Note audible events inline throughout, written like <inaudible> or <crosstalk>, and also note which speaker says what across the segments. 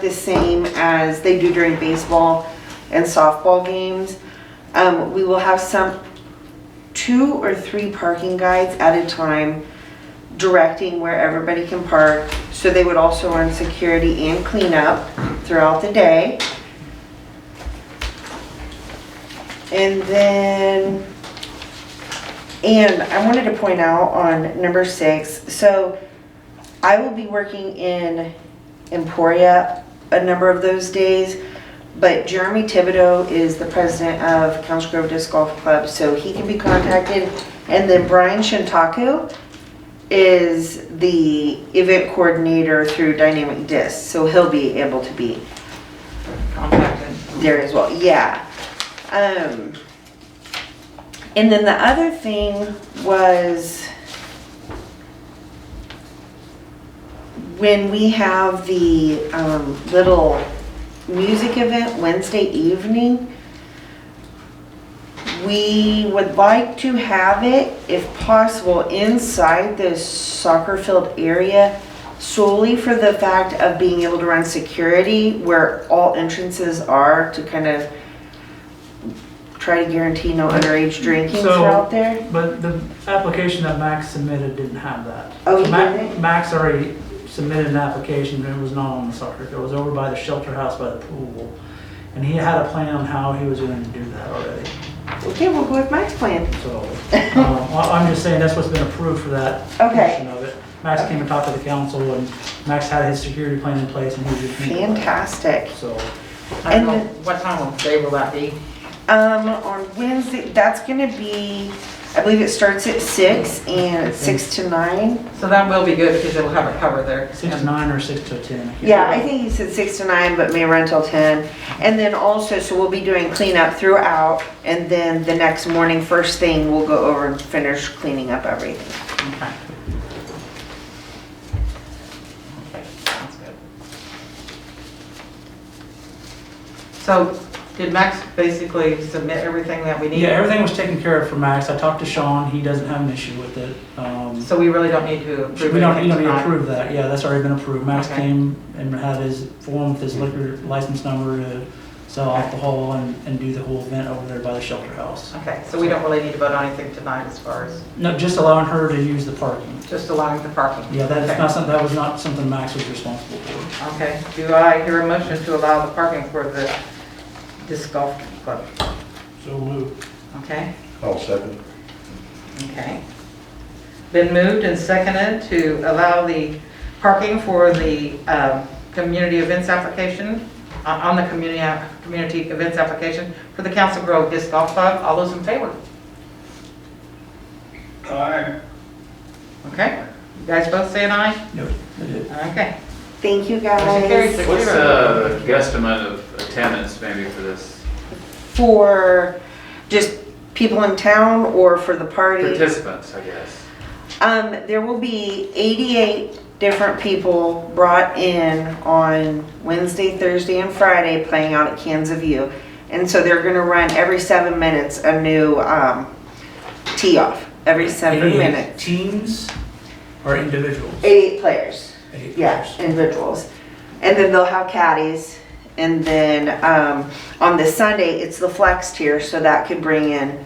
Speaker 1: the same as they do during baseball and softball games. Um, we will have some, two or three parking guides at a time directing where everybody can park. So they would also run security and cleanup throughout the day. And then, and I wanted to point out on number six, so I will be working in Emporia a number of those days, but Jeremy Thibodeau is the president of Council Grove Disc Golf Club, so he can be contacted. And then Brian Shintaku is the event coordinator through Dynamic Disc, so he'll be able to be
Speaker 2: contacted.
Speaker 1: there as well. Yeah. Um, and then the other thing was when we have the um, little music event Wednesday evening, we would like to have it, if possible, inside the soccer field area solely for the fact of being able to run security where all entrances are to kind of try to guarantee no underage drinking
Speaker 3: So-
Speaker 1: throughout there.
Speaker 3: But the application that Max submitted didn't have that.
Speaker 1: Oh, he
Speaker 3: Ma-
Speaker 1: didn't?
Speaker 3: Max already submitted an application, and it was not on the soccer, field. it was over by the shelter house by the pool. And he had a plan on how he was going to do that already,
Speaker 1: Okay, we'll go with Mike's plan. <laughs>
Speaker 3: so. um, I- I'm just saying, that's what's been approved for that
Speaker 1: Okay.
Speaker 3: portion of it. Max came and talked to the council, and Max had his security plan in place, and he was just.
Speaker 1: Fantastic.
Speaker 3: So,
Speaker 2: I don't
Speaker 1: And
Speaker 2: know,
Speaker 1: then-
Speaker 2: what time of day will that be?
Speaker 1: Um, on Wednesday, that's gonna be, I believe it starts at six and it's six to nine.
Speaker 2: So that will be good because it'll have a cover there.
Speaker 3: six to
Speaker 2: And-
Speaker 3: nine or six to 10. I can't
Speaker 1: Yeah, I
Speaker 3: remember.
Speaker 1: think he said six to nine, but may run till ten. And then also, so we'll be doing cleanup throughout and then the next morning, first thing, we'll go over and finish cleaning up everything.
Speaker 2: Okay. Okay, sounds good. So did Max basically submit everything that we need?
Speaker 3: Yeah, everything was taken care of for Max. I talked to Sean, he doesn't have an issue with it. Um,
Speaker 2: So we really don't need to
Speaker 3: We
Speaker 2: approve
Speaker 3: don't, you don't
Speaker 2: anything
Speaker 3: need to
Speaker 2: tonight?
Speaker 3: approve that, yeah, that's already been approved. Max
Speaker 2: Okay.
Speaker 3: came and had his form with his liquor license number to sell
Speaker 2: Okay.
Speaker 3: alcohol and, and do the whole event over there by the shelter house.
Speaker 2: Okay, so we don't really need to vote on anything tonight as far as
Speaker 3: No, just allowing her to use the parking.
Speaker 2: just allowing the parking?
Speaker 3: Yeah, that is
Speaker 2: Okay.
Speaker 3: not something, that was not something Max was responsible for.
Speaker 2: Okay, do I hear a motion to allow the parking for the disc golf club?
Speaker 3: So moved.
Speaker 2: Okay,
Speaker 4: I'll second.
Speaker 2: okay. Been moved and seconded to allow the parking for the um, community events application, on on the community, uh, community events application for the Council Grove Disc Golf Club. All those in favor?
Speaker 4: Aye.
Speaker 2: Okay, you guys both say an aye?
Speaker 3: No, they did.
Speaker 2: Okay.
Speaker 1: Thank you
Speaker 2: Motion carries
Speaker 1: guys
Speaker 2: six
Speaker 5: What's
Speaker 2: zero.
Speaker 5: the guesstimate of attendance maybe for this?
Speaker 1: for just people in town or for the party.
Speaker 5: Participants, I guess.
Speaker 1: Um, there will be 88 different people brought in on Wednesday, Thursday, and Friday playing out at Kansas View. And so they're gonna run every seven minutes a new, um, tee off, every seven
Speaker 3: Any
Speaker 1: minutes.
Speaker 3: Teams or individuals?
Speaker 1: 88 players.
Speaker 3: Eight
Speaker 1: Yeah,
Speaker 3: players.
Speaker 1: individuals. And then they'll have caddies. And then um, on the Sunday, it's the flex tier, so that could bring in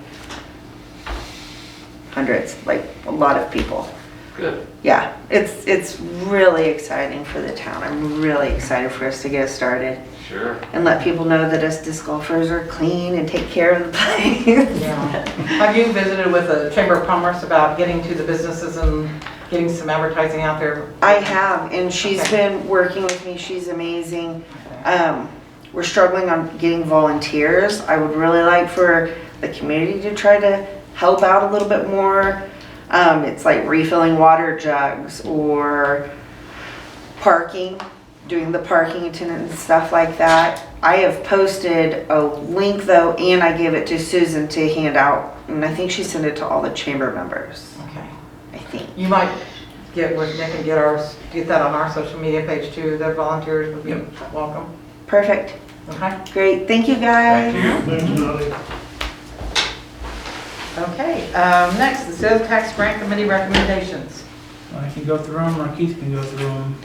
Speaker 1: hundreds, like a lot of people.
Speaker 5: Good.
Speaker 1: Yeah, it's it's really exciting for the town. I'm really excited for us to get started
Speaker 5: Sure.
Speaker 1: and let people know that us disc golfers are clean and take care of the place.
Speaker 2: Yeah. Have you visited with the Chamber of Commerce about getting to the businesses and getting some advertising out there?
Speaker 1: I have, and she's
Speaker 2: Okay.
Speaker 1: been working with me. She's amazing. Um, we're struggling on getting volunteers. I would really like for the community to try to help out a little bit more. Um, it's like refilling water jugs or parking, doing the parking attendant and stuff like that. I have posted a link though, and I gave it to Susan to hand out, and I think she sent it to all the chamber members,
Speaker 2: Okay.
Speaker 1: I think.
Speaker 2: You might get with Nick and get ours, get that on our social media page too, the volunteers would be welcome.
Speaker 1: Perfect.
Speaker 2: Okay?
Speaker 1: Great. Thank you guys.
Speaker 5: Thank you.
Speaker 2: Okay, um, next, the sales tax grant committee recommendations.
Speaker 3: I can go through them or Keith can go through them.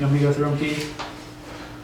Speaker 3: You want me to go through them, Keith?